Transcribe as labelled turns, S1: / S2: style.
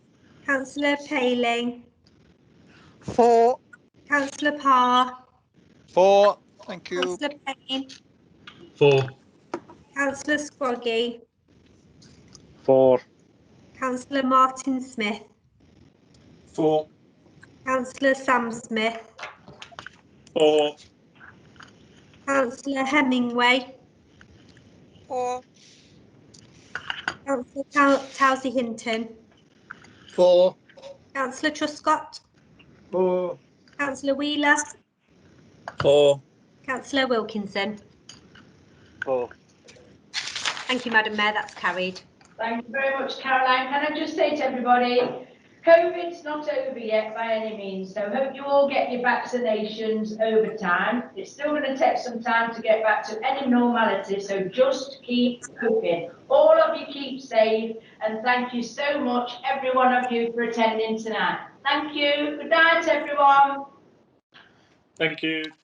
S1: councillor Paling,
S2: Four.
S1: councillor Parr,
S2: Four. Thank you.
S1: councillor Payne,
S3: Four.
S1: councillor Scroggy,
S4: Four.
S1: councillor Martin Smith,
S4: Four.
S1: councillor Sam Smith,
S4: Four.
S1: councillor Hemingway,
S2: Four.
S1: councillor Tow- Towsy Hinton,
S2: Four.
S1: councillor Truscott,
S4: Four.
S1: councillor Wheeler,
S4: Four.
S1: councillor Wilkinson.
S4: Four.
S1: Thank you, Madam Mayor, that's carried.
S5: Thank you very much, Caroline. Can I just say to everybody, COVID's not over yet by any means, so hope you all get your vaccinations over time. It's still going to take some time to get back to any normality, so just keep cooking. All of you keep safe, and thank you so much, every one of you, for attending tonight. Thank you. Good night, everyone.
S4: Thank you.